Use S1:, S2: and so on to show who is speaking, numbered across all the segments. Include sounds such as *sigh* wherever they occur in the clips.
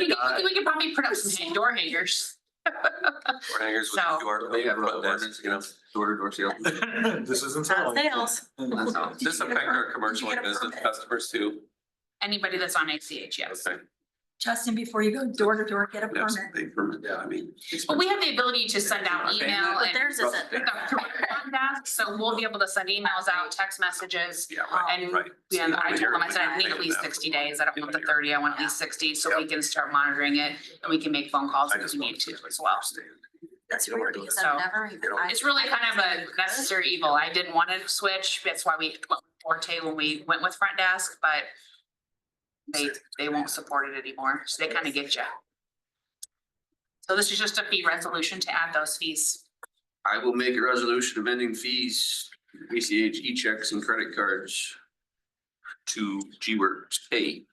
S1: I-
S2: we could probably put up some door hangers.
S1: Door hangers with
S2: So-
S1: QR
S3: They have
S1: code
S3: doors,
S1: buttons, you know.
S3: Door to door sales.
S4: This isn't.
S2: On sales,
S1: So This affect our commercial and business customers too.
S2: anybody that's on ACH, yes.
S1: Okay.
S5: Justin, before you go door to door, get a
S1: Yes,
S5: permit.
S1: they permit, yeah, I mean.
S2: But we have the ability to send out
S1: Okay.
S2: email
S5: But
S2: and.
S5: theirs isn't.
S2: With our career contact, so we'll be able to send emails out, text messages.
S1: Yeah, right,
S2: And,
S1: right.
S2: and I told them, I said, I need
S1: You're-
S2: at least sixty days. I don't want the
S1: Yeah.
S2: thirty, I want at least sixty, so we can start monitoring it. And we can make phone calls
S1: I
S2: if
S1: just
S2: we
S1: want
S2: need to as well.
S5: That's
S1: You don't
S5: weird
S1: wanna do
S5: because
S1: that.
S5: I've never even.
S1: You know,
S2: It's really kind of a necessary evil. I didn't want to switch. That's why we, Forte, when we went with front desk, but they, they won't support it anymore. So they kind of get you. So this is just a fee resolution to add those fees.
S3: I will make a resolution amending fees, ACH, e-checks and credit cards to G Works Pay.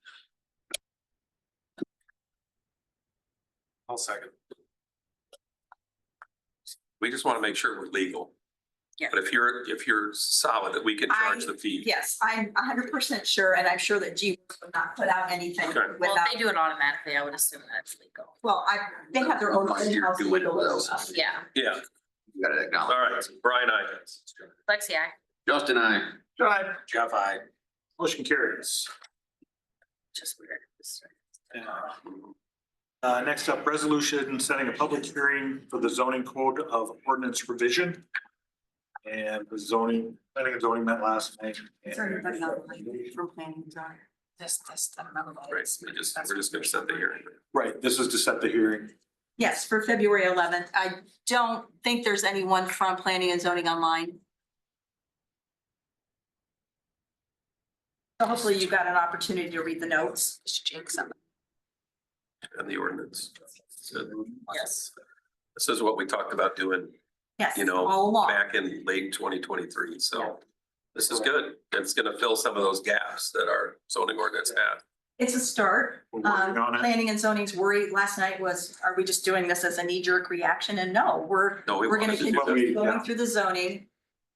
S4: I'll second.
S1: We just want to make sure we're legal.
S5: Yeah.
S1: But if you're, if you're solid, that we can charge
S5: I-
S1: the fee.
S5: Yes, I'm a hundred percent sure, and I'm sure that G would not put out anything
S1: Okay. Well,
S5: without,
S6: They do it automatically, I would assume that's legal.
S5: well, I, they have their own.
S3: Must do
S5: in-house
S3: it
S5: legal
S3: without
S5: stuff.
S6: Yeah,
S1: Yeah,
S3: You gotta
S1: all
S3: acknowledge.
S1: right, Brian, I.
S6: Lexi, I.
S3: Justin, I,
S4: Drive.
S1: Jeff, I.
S4: Motion carries.
S6: just weird.
S4: Uh, next up, resolution setting a public hearing for the zoning code of ordinance revision. And the zoning, I think zoning met last night.
S5: Is there anybody online from planning and zoning?
S2: This, this, I don't know what it
S1: Right,
S2: is.
S1: we just, we're just gonna set the hearing.
S4: Right, this is to set the hearing.
S5: Yes, for February eleventh. I don't think there's anyone from planning and zoning online. So Hopefully you got an opportunity to read the notes.
S2: Just jinx them.
S1: And the ordinance. So
S6: Yes.
S1: This is what we talked about doing
S5: Yes,
S1: You know,
S5: all along.
S1: back in late twenty twenty-three, so this is good. It's gonna fill some of those gaps that our zoning ordinance had.
S5: It's a start.
S4: We're
S5: Um,
S4: working on it.
S5: planning and zoning's worry last night was, are we just doing this as a knee jerk reaction? And no, we're,
S1: No, we
S5: we're gonna
S1: wanted to do
S4: But we-
S5: continue going
S4: yeah.
S5: through the zoning.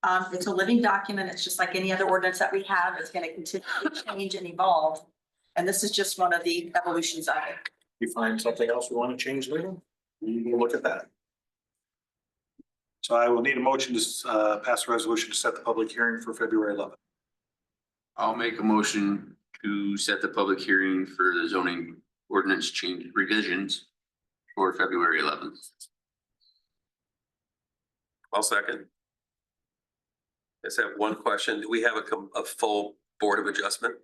S5: Um, it's a living document. It's just like any other ordinance that we have. It's gonna continue to change and evolve. And this is just one of the evolutions of it.
S4: You find something else we want to change later, we will look at that. So I will need a motion to, uh, pass a resolution to set the public hearing for February eleventh.
S3: I'll make a motion to set the public hearing for the zoning ordinance change revisions for February eleventh.
S1: I'll second. I just have one question. Do we have a, com- a full board of adjustment?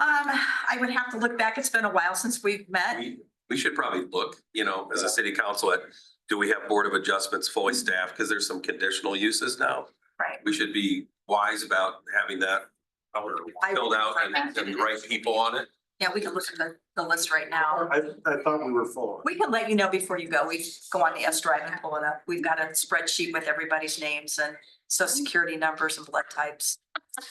S5: Um, I would have to look back. It's been a while since we've met.
S1: We, we should probably look, you know, as a city council, at, do we have board of adjustments fully staffed? Because there's some conditional uses now.
S5: Right.
S1: We should be wise about having that
S5: I-
S1: filled out and, and the right people on it.
S5: Yeah, we can look at the, the list right now.
S4: I, I thought we were full.
S5: We can let you know before you go. We go on the S drive and pull it up. We've got a spreadsheet with everybody's names and social security numbers and blood types.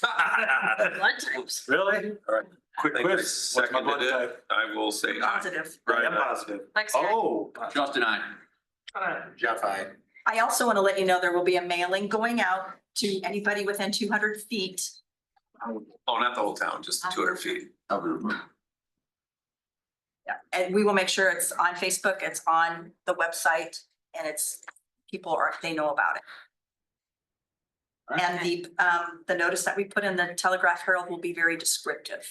S6: Blood types.
S4: Really?
S1: All right.
S4: Quick
S1: I think I
S4: quiz. What's my blood
S1: seconded it.
S4: type?
S1: I will say aye.
S5: Positive.
S4: I am
S1: Right.
S4: positive.
S6: Lexi, I.
S4: Oh.
S3: Justin, I,
S4: Jeff, I.
S5: I also want to let you know there will be a mailing going out to anybody within two hundred feet.
S1: Oh, not the whole town, just two hundred feet.
S5: And we will make sure it's on Facebook, it's on the website, and it's, people are, they know about it. And the, um, the notice that we put in the Telegraph Herald will be very descriptive.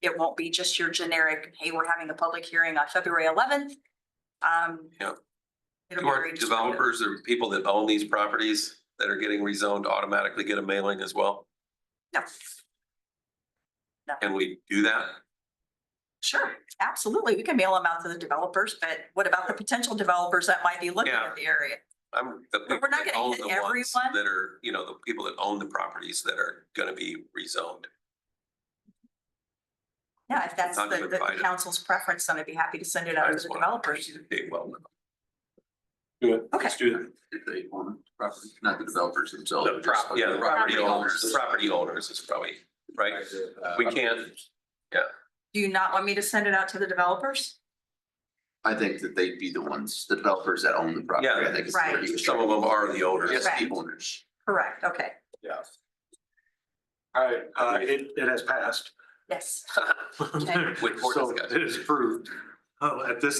S5: It won't be just your generic, hey, we're having a public hearing on February eleventh. Um.
S1: Yeah.
S5: It'll
S1: Do
S5: be
S1: our
S5: very descriptive.
S1: developers or people that own these properties that are getting rezoned automatically get a mailing as well?
S5: No.
S1: Can we do that?
S5: Sure, absolutely. We can mail them out to the developers, but what about the potential developers that might be looking
S1: Yeah.
S5: at the area?
S1: I'm, the
S5: we're
S1: people
S5: not
S1: that
S5: gonna
S1: own
S5: hit
S1: the ones
S5: everyone.
S1: that are, you know, the people that own the properties that are gonna be rezoned.
S5: Yeah, if that's
S1: Not
S5: the,
S1: even
S5: the
S1: invited.
S5: council's preference, then I'd be happy to send it out
S1: I
S5: to
S1: just
S5: the
S1: wanna-
S5: developers.
S1: Okay, well,
S4: Do it.
S5: Okay.
S4: Let's do
S3: if they own property, not the developers themselves.
S1: the prop, yeah, the property
S5: Property
S1: owners, the
S5: owners.
S1: property owners is probably, right?
S4: Uh,
S1: We can't,
S5: Do you not want me to send it out to the developers?
S3: I think that they'd be the ones, the developers that own the property.
S1: Yeah.
S3: I think it's
S5: Right.
S3: what he was
S1: some of
S3: trying-
S1: them are the owners.
S3: Yes, the
S5: Correct.
S3: owners.
S5: Correct, okay,
S4: All right, uh, it, it has passed.
S5: yes.
S1: With court
S4: So *laughs*
S1: discussion.
S4: It is approved. Oh, at this